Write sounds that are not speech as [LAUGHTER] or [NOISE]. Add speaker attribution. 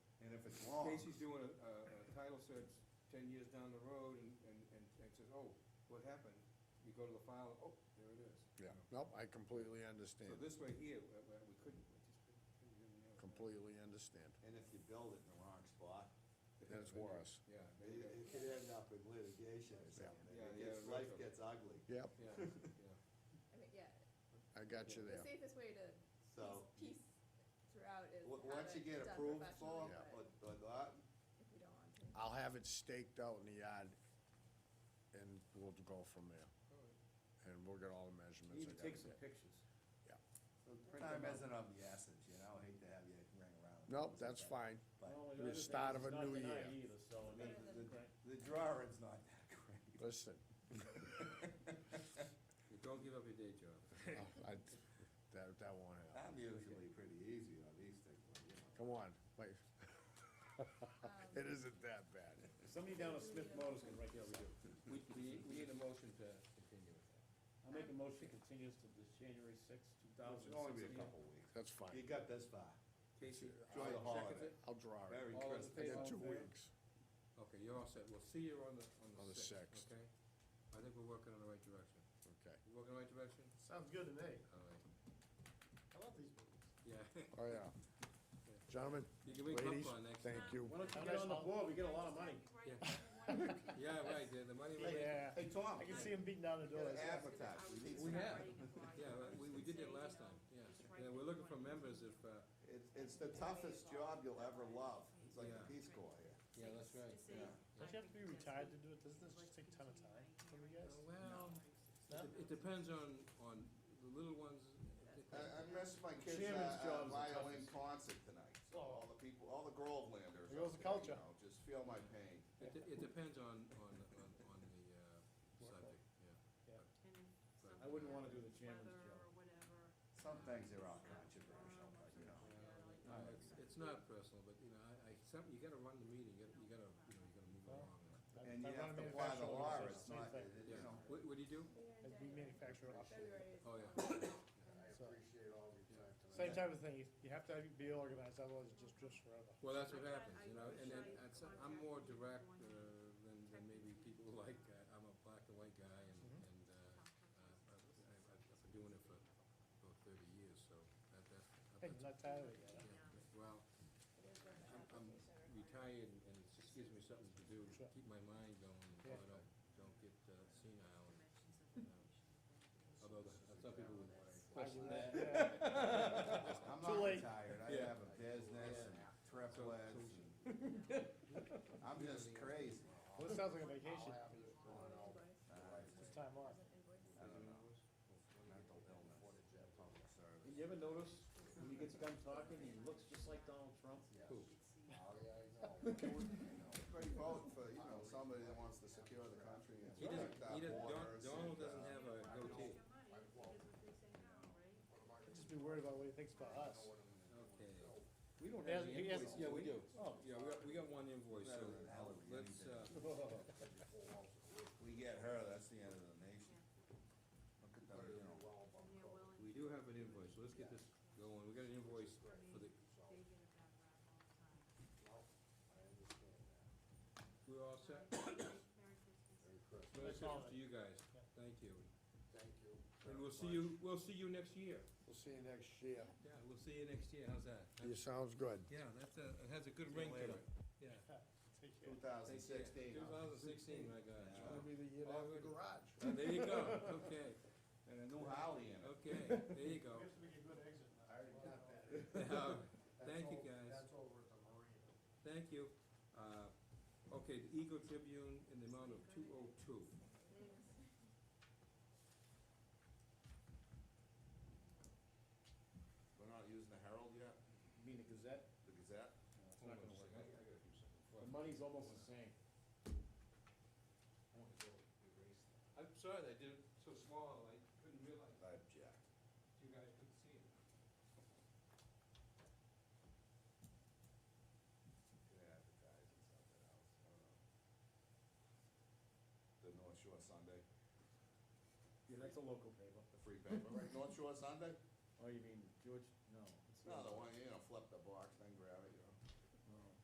Speaker 1: wrong.
Speaker 2: Casey's doing a, a a title search ten years down the road and, and, and and says, oh, what happened? You go to the file, oh, there it is.
Speaker 1: Yeah, nope, I completely understand,
Speaker 2: So this way here, we, we we couldn't, we just couldn't- couldn't do it.
Speaker 1: completely understand.
Speaker 3: And if you build it in the wrong spot,
Speaker 2: It
Speaker 1: That's
Speaker 2: could've been-
Speaker 1: worse.
Speaker 2: Yeah.
Speaker 3: it,
Speaker 2: maybe that-
Speaker 3: it could end up in litigation or
Speaker 1: Yeah.
Speaker 3: something.
Speaker 2: Yeah,
Speaker 3: It
Speaker 2: yeah,
Speaker 3: gets- life
Speaker 2: retro.
Speaker 3: gets ugly,
Speaker 1: Yep, [LAUGHS]
Speaker 2: Yeah, yeah.
Speaker 4: I mean, yeah,
Speaker 1: I got you
Speaker 4: the
Speaker 1: there.
Speaker 4: safest way to
Speaker 3: so.
Speaker 4: piece, piece throughout is
Speaker 3: w-
Speaker 4: have
Speaker 3: Once you
Speaker 4: it
Speaker 3: get
Speaker 4: done
Speaker 3: approved for,
Speaker 4: professionally,
Speaker 3: but, but
Speaker 4: but
Speaker 3: that,
Speaker 4: if we don't want to.
Speaker 1: I'll have it staked out in the yard, and we'll go from there,
Speaker 2: All right.
Speaker 1: and we'll get all the
Speaker 2: You
Speaker 1: measurements
Speaker 2: need
Speaker 1: I
Speaker 2: to
Speaker 1: gotta
Speaker 2: take some
Speaker 1: get.
Speaker 2: pictures. Print
Speaker 3: time
Speaker 2: them out.
Speaker 3: isn't of the essence, you know, I hate to have you ring around. the
Speaker 1: Nope,
Speaker 3: rosy,
Speaker 1: that's
Speaker 3: but
Speaker 1: fine, The
Speaker 5: Well, other thing
Speaker 1: start
Speaker 5: is
Speaker 1: of a
Speaker 5: not
Speaker 1: new
Speaker 5: tonight
Speaker 1: year.
Speaker 5: Either,
Speaker 3: The,
Speaker 5: so, I mean,
Speaker 4: Better
Speaker 3: the,
Speaker 5: right.
Speaker 3: the drawing's not that
Speaker 1: [LAUGHS]
Speaker 3: great.
Speaker 2: [LAUGHS]
Speaker 1: listen, Oh,
Speaker 2: You Don't give up your day job.
Speaker 1: I, that, that won't happen.
Speaker 3: I'm usually pretty easy on these things, but, you know.
Speaker 1: Come on, wait. [LAUGHS]
Speaker 4: Um,
Speaker 1: It isn't that bad.
Speaker 5: somebody down at Smith Motors can write this up.
Speaker 2: We, we, we need a motion to continue with that.
Speaker 5: I make a motion continues to the January sixth, two thousand
Speaker 3: It'll only be a
Speaker 5: sixteen.
Speaker 3: couple weeks.
Speaker 1: That's
Speaker 3: You
Speaker 1: fine.
Speaker 3: got this far,
Speaker 2: Casey,
Speaker 3: Enjoy the
Speaker 2: second
Speaker 3: holiday.
Speaker 2: it?
Speaker 1: I'll draw it.
Speaker 3: very
Speaker 2: All those
Speaker 3: crisp.
Speaker 2: in
Speaker 1: I
Speaker 2: favor?
Speaker 1: got two
Speaker 5: All in favor?
Speaker 1: weeks.
Speaker 2: Okay, you're all set. We'll see you on the,
Speaker 1: On
Speaker 2: on
Speaker 1: the
Speaker 2: the
Speaker 1: sixth.
Speaker 2: sixth, okay? I think we're working in the right direction.
Speaker 1: Okay.
Speaker 2: You working in the right direction?
Speaker 6: Sounds good to me.
Speaker 2: All right,
Speaker 6: I love these movies.
Speaker 2: yeah. [LAUGHS]
Speaker 1: Oh, yeah. Gentlemen,
Speaker 2: You can make
Speaker 1: ladies,
Speaker 2: up on next.
Speaker 1: thank you.
Speaker 5: Why don't you
Speaker 6: How
Speaker 5: get
Speaker 6: nice
Speaker 5: on the
Speaker 6: of-
Speaker 5: board, we get a lot of money.
Speaker 2: Yeah, right, the, the money. we-
Speaker 6: Yeah.
Speaker 3: Hey, Tom,
Speaker 6: I can see him beating down the
Speaker 3: you
Speaker 6: door.
Speaker 3: gotta advertise, we need
Speaker 2: We
Speaker 3: some-
Speaker 2: have, yeah, uh, we, we did it last time, yeah. Yeah, we're looking for members if, uh,
Speaker 3: It's, it's the toughest job you'll ever love, it's like the
Speaker 2: Yeah.
Speaker 3: Peace Corps here.
Speaker 2: yeah, that's right.
Speaker 6: Don't you have to be retired to do it? Doesn't this just take a ton of time for you guys?
Speaker 2: Uh, Well,
Speaker 6: No?
Speaker 2: it- it depends on, on the little ones.
Speaker 3: I, I missed my kids' uh,
Speaker 5: Chairman's
Speaker 3: uh,
Speaker 5: job is the
Speaker 3: violin
Speaker 5: toughest.
Speaker 3: concert tonight, so
Speaker 6: Oh.
Speaker 3: all the people, all the Grovelanders.
Speaker 6: There
Speaker 3: out there,
Speaker 6: goes the
Speaker 3: you
Speaker 6: culture.
Speaker 3: know, Just feel my pain.
Speaker 2: It, de- it depends on, on, on, on the, uh,
Speaker 6: Workload.
Speaker 2: subject, yeah.
Speaker 5: I wouldn't wanna do the chairman's job.
Speaker 3: Some things are all controversial, but you know.
Speaker 2: No, it's, it's not personal, but, you know, I, I, some, you gotta run the meeting, you gotta, you gotta, you know, you gotta move
Speaker 6: Well,
Speaker 2: along.
Speaker 6: I-
Speaker 3: And
Speaker 6: I
Speaker 3: you
Speaker 6: run
Speaker 3: have to apply
Speaker 6: a
Speaker 3: the
Speaker 6: manufacturing
Speaker 3: law,
Speaker 6: organization,
Speaker 3: it's
Speaker 6: same
Speaker 3: not,
Speaker 6: thing.
Speaker 3: it-
Speaker 2: Yeah,
Speaker 3: you know.
Speaker 2: what, what do you do?
Speaker 6: As we manufacture our shit.
Speaker 4: February is.
Speaker 2: Oh, yeah.
Speaker 6: So,
Speaker 3: all your time
Speaker 6: Same type of thing, you- you have to have- be organized, otherwise it just drifts forever.
Speaker 2: Well, that's what happens, you know, and then, that's- I'm more direct, uh, than, than maybe people [LAUGHS] like, uh, I'm a black and white guy and,
Speaker 6: Mhm.
Speaker 2: and, uh, uh, I've, I've I've been doing it for about thirty years, so that, that.
Speaker 6: Hey, you're
Speaker 2: that's-
Speaker 6: not tired of it yet, huh?
Speaker 2: yeah, Well, I'm, I'm retired and and it just gives me something to do, to
Speaker 6: Sure.
Speaker 2: keep my mind going, so
Speaker 6: Yeah.
Speaker 2: I don't, don't get uh, senile. and, uh, Although, the- uh, some people would question that.
Speaker 6: Yeah.
Speaker 3: [LAUGHS] I'm
Speaker 6: Too
Speaker 3: not
Speaker 6: late.
Speaker 3: retired, I
Speaker 2: Yeah.
Speaker 3: have a business and triplets and, I'm just crazy. Uh,
Speaker 6: Well, it sounds like a
Speaker 3: My
Speaker 6: vacation,
Speaker 3: wife's
Speaker 6: it's time off.
Speaker 3: I don't know. Mental illness,
Speaker 1: Oh,
Speaker 3: public service.
Speaker 5: [LAUGHS] You ever notice, when he gets done talking, he looks just like Donald Trump?
Speaker 3: Yes.
Speaker 2: Who?
Speaker 3: Oh, yeah, I
Speaker 6: [LAUGHS]
Speaker 3: know. Everybody vote for, you know, somebody that wants to secure the country and
Speaker 2: He doesn't,
Speaker 3: protect our
Speaker 2: he doesn't, Don-
Speaker 3: borders.
Speaker 2: Donald
Speaker 3: and, uh,
Speaker 2: doesn't have a goatee.
Speaker 6: I'd Just be worried about what he thinks about us.
Speaker 2: Okay. We don't
Speaker 6: He
Speaker 2: have
Speaker 6: has-
Speaker 2: any
Speaker 6: he has-
Speaker 2: invoice. Yeah, we do.
Speaker 5: [LAUGHS]
Speaker 6: Oh.
Speaker 2: Yeah, we got, we got one invoice, so
Speaker 3: Better than Hillary,
Speaker 2: let's,
Speaker 3: anything.
Speaker 2: uh,
Speaker 3: We get her, that's the end of the nation. Look at them, you know.
Speaker 2: we do have an invoice, so let's get this going. We got an invoice for the, we're all set? Merry
Speaker 6: Merry
Speaker 2: Christmas to
Speaker 6: holiday.
Speaker 2: you guys.
Speaker 6: Yeah.
Speaker 2: Thank you.
Speaker 3: Thank you.
Speaker 2: And we'll see you, we'll see you next year.
Speaker 1: We'll see you next year.
Speaker 2: Yeah, we'll see you next year. How's that?
Speaker 1: You sounds good.
Speaker 2: Yeah, that's a, it has a good ring to it. Yeah.
Speaker 6: Take care.
Speaker 3: Two thousand sixteen.
Speaker 2: Two thousand sixteen, my God.
Speaker 1: It's gonna be the
Speaker 3: [LAUGHS]
Speaker 1: year to have the garage.
Speaker 2: Uh, There you go. Okay,
Speaker 3: And a new Holly in it.
Speaker 2: okay, there you go.
Speaker 6: to make a good exit.
Speaker 7: I already got that.
Speaker 2: [LAUGHS] Uh, Thank you,
Speaker 7: That's o-
Speaker 2: guys.
Speaker 7: That's over at the Marina.
Speaker 2: Thank you. Uh, okay, the Eagle Tribune in the amount of two oh two.
Speaker 3: We're not using the Herald yet,
Speaker 5: You mean the Gazette?
Speaker 3: the Gazette?
Speaker 5: No, It's not gonna work out. The money's almost the same.
Speaker 2: I'm sorry that I did it so small, I couldn't realize
Speaker 3: I object.
Speaker 2: you guys couldn't see it.
Speaker 3: Could advertise and something else, I don't know. The North Shore Sunday,
Speaker 5: Yeah, that's a local paper.
Speaker 3: the free paper, right, North Shore Sunday?
Speaker 5: Oh, you mean George, no. it's
Speaker 3: No, the one, you know, flip the box,
Speaker 5: Oh.